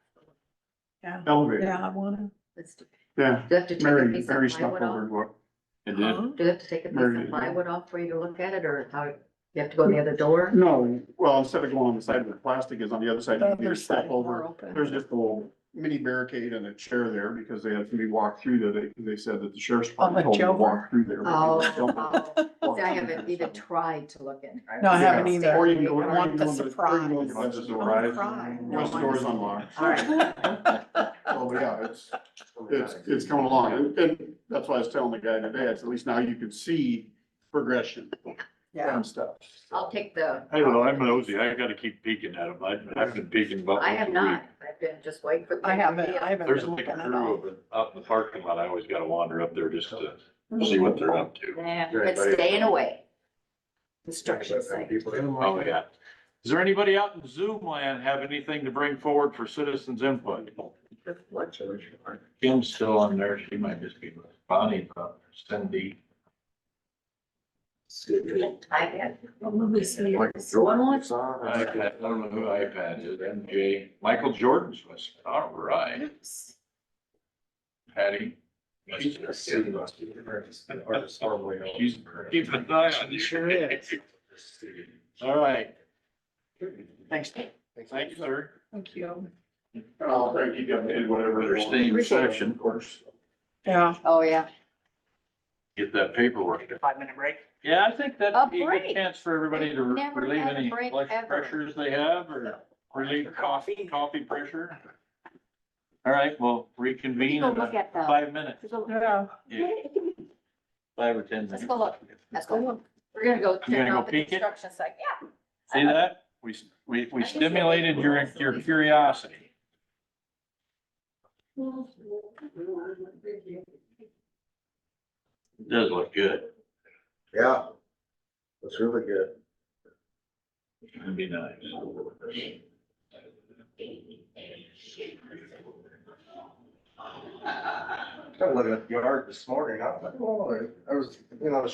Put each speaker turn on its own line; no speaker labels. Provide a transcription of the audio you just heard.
Yeah.
elevator,
Yeah, I wanna.
Let's do
yeah,
do I have to take a
Mary,
piece of
Mary
plywood off?
Stopover, what,
It did.
Do I have to take a piece
Mary-
of plywood off for you to look at it, or how, you have to go in the other door?
no, well, instead of going on the side where the plastic is on the other side, you
The
need to
other
step
side
over.
door open.
There's just a little mini barricade and a chair there because they had somebody walk through there. They, they said that the sheriff's department told them to walk through there. but they don't walk
Oh, oh, see, I haven't
through there.
even tried to look in.
No, I haven't
Yeah.
either.
Or you can go,
I
or you
want
can
the
go in the, or you can go in the budget
surprise.
door,
Surprise.
west door is unlocked.
All right,
Oh, but yeah, it's, it's, it's coming along, and, and that's why I was telling the guy today, it's at least now you can see progression
Yeah,
and stuff.
I'll take the,
I don't know, I'm nosy, I gotta keep peeking at them, I've I've been peeking about.
I have
once a week.
not, I've been just waiting for. the
I haven't,
Yeah.
I haven't.
There's
been
like a
looking at
crew
all.
of it up in the parking lot, I always gotta wander up there just to see what they're up to.
Yeah, but staying away. Construction site.
Oh, yeah. Does there anybody out in Zoom land have anything to bring forward for citizens input? Kim's still on there, she might just be, Bonnie, uh, Cindy.
I had, one wants
iPad, I don't know who iPad is, MJ, Michael Jordan's was, all right, Patty. She's she's keeping an eye on you.
Sure is.
All right,
Thanks,
thank you, sir.
thank you.
I'll try to keep you updated, whatever.
Better stay in section, of course,
Yeah,
Oh, yeah.
get that paperwork.
Five minute break.
Yeah, I think that'd
A
be a
break.
good chance for everybody to re-
Never
relieve
had a
any
break
blood
ever.
pressures they have or relieve coffee, coffee pressure. All right, we'll reconvene
Go
in
look
a-
at the.
five minutes,
yeah.
yeah, five or ten minutes.
Let's go look. Let's go look. We're gonna go
You
check
gonna go
out the
peek it?
construction site, yeah.
See that? We, s- we, we stimulated your, your curiosity.
嗯
It Does look good.
Yeah. That's really good.
It'd be nice.
I'm looking at the yard this morning. I was like, oh, I was, you know,